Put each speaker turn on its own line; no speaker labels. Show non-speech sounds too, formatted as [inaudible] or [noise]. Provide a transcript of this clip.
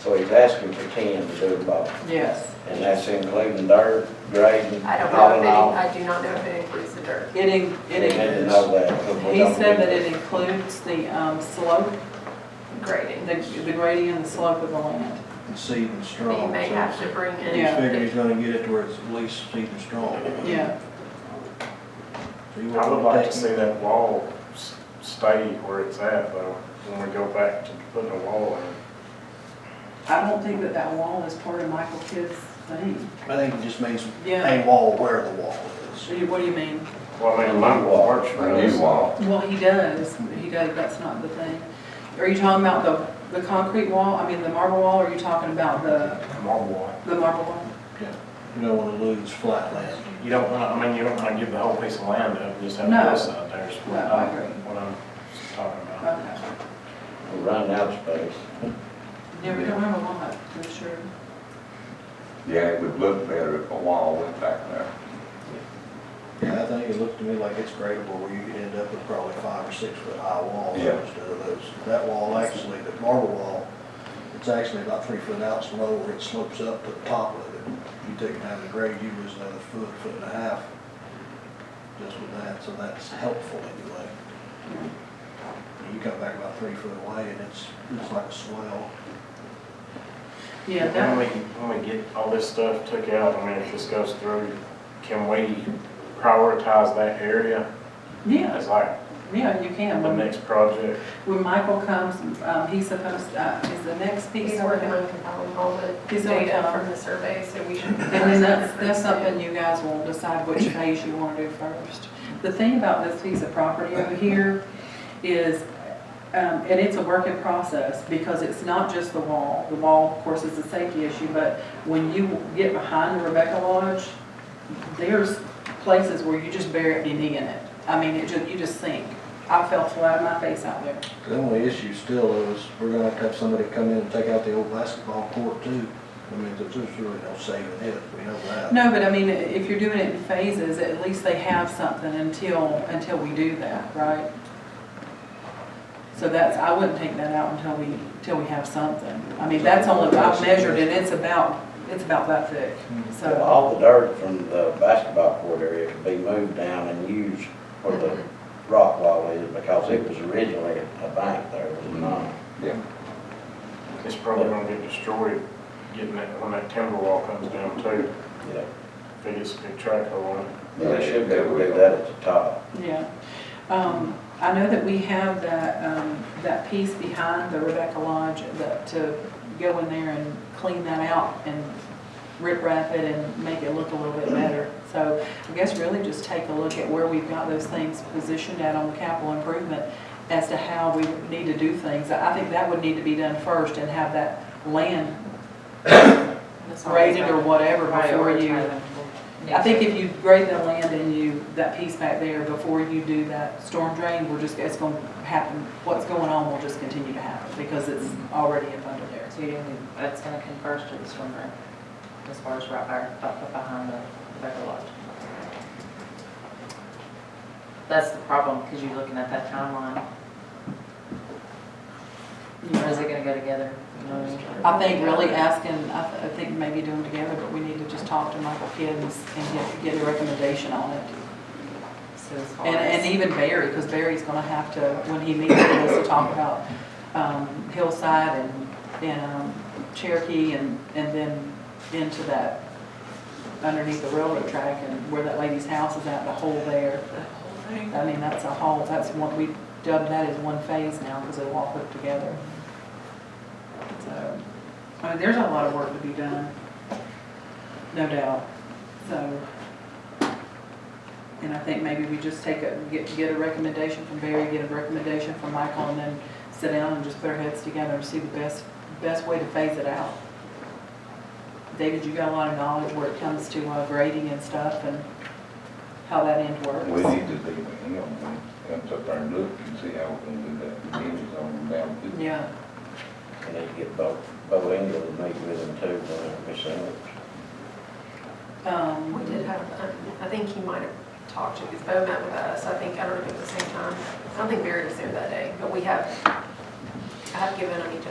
So he's asking for ten to do them all,
Yes,
and that's including dirt, grading,
I don't know
all
if
in
it,
all.
I do not know if it includes the dirt.
it in,
They
it
had to
in,
know that. 'cause we
he
don't
said
do
that it includes the, um, slope,
Grading.
the, the grading and the slope of the land.
seed and straw.
We may
so
have to bring in.
He's
Yeah.
figuring he's gonna get it to where it's at least seed and straw.
Yeah,
So you
I would like to
want
see that wall s- stay where it's at, though, when we go back to putting a wall in.
I don't think that that wall is part of Michael Kidd's thing.
I think it just means
Yeah,
a wall where the wall is.
So you- what do you mean?
Well, I mean, my
Wall.
porch
A new wall.
Well, he does, but he does, that's not the thing. Are you talking about the, the concrete wall, I mean, the marble wall, or are you talking about the,
marble wall.
the marble wall?
You don't wanna lose flat land.
You don't wanna, I mean, you don't wanna give the whole piece of land up, just have
No.
this out there, is what
No, I
I'm,
agree.
what I'm talking about.
Okay.
it. We're running out of space.
Yeah, we don't have a lot, for sure.
Yeah, it would look better if a wall went back there.
Yeah, I think it looked to me like it's gradable where you could end up with probably five or six foot high walls
Yeah.
instead of those. That wall actually, the marble wall, it's actually about three foot out and low where it slopes up to the top of it. You take it down to grade, you lose another foot, foot and a half just with that, so that's helpful anyway. And You come back about three foot away and it's, it's like a swell.
Yeah,
When
that,
we, when we get all this stuff took out, I mean, if this goes through, can we prioritize that area
yeah,
as like
yeah, you can.
the
When-
next project?
When Michael comes, um, he's supposed, uh, is the next piece.
He's working on compiling all the
He's working
data
on-
from the survey, so we should.
And then that's,
[laughs]
that's something you guys will decide which phase you want to do first. The thing about this piece of property over here is, um, and it's a work in process, because it's not just the wall. The wall, of course, is a safety issue, but when you get behind the Rebecca Lodge, there's places where you just bury your knee in it. I mean, it just, you just sink. I fell flat on my face out there.
The only issue still is, we're gonna have to have somebody come in and take out the old basketball court too. I mean, there's really no saving it, we know that.
No, but I mean, if you're doing it in phases, at least they have something until, until we do that, right? So that's, I wouldn't take that out until we, until we have something. I mean, that's only, I've measured it, it's about, it's about that thick,
Well,
so.
All the dirt from the basketball court area could be moved down and used for the rock wall is, because it was originally a bank there, was not.
Yeah.
It's probably gonna get destroyed getting that, when that timber wall comes down too,
Yeah.
if it gets a big track on it.
But they should be able to do that at the top.
Yeah. Um, I know that we have that, um, that piece behind the Rebecca Lodge that, to go in there and clean that out and rip wrap it and make it look a little bit better. So I guess really just take a look at where we've got those things positioned at on capital improvement as to how we need to do things. I think that would need to be done first and have that land graded or whatever before you. I think if you grade the land and you, that piece back there, before you do that storm drain, we're just, it's gonna happen, what's going on will just continue to happen, because it's already up under there.
So you didn't, that's gonna converge to the swim room, as far as right there, up behind the Rebecca Lodge. That's the problem, because you're looking at that timeline, where is it gonna go together, you know what I
I
mean?
think really asking, I, th- I think maybe doing together, but we need to just talk to Michael Kidd and s- and get, get a recommendation on it.
So as far
And,
as-
and even Barry, because Barry's gonna have to, when he meets with us, to talk about, um, Hillside and, and um, Cherokee and, and then into that, underneath the railroad track and where that lady's house is at, the hole there. I mean, that's a hole, that's one, we dubbed that as one phase now, because they all hooked together. So, I mean, there's a lot of work to be done, no doubt, so. And I think maybe we just take a, get, get a recommendation from Barry, get a recommendation from Michael, and then sit down and just put our heads together and see the best, best way to phase it out. David, you got a lot of knowledge where it comes to uh, grading and stuff and how that end works.
We need to leave it him, he comes up there and look and see how we can do that, the damage on down to.
Yeah,
And they get Bo, Bo Engel to meet with them too, when they
um,
We did have, um, I think he might have talked to, because Bo met with us, I think, I don't know if it was the same time. I don't think Barry was there that day, but we have, I have given him each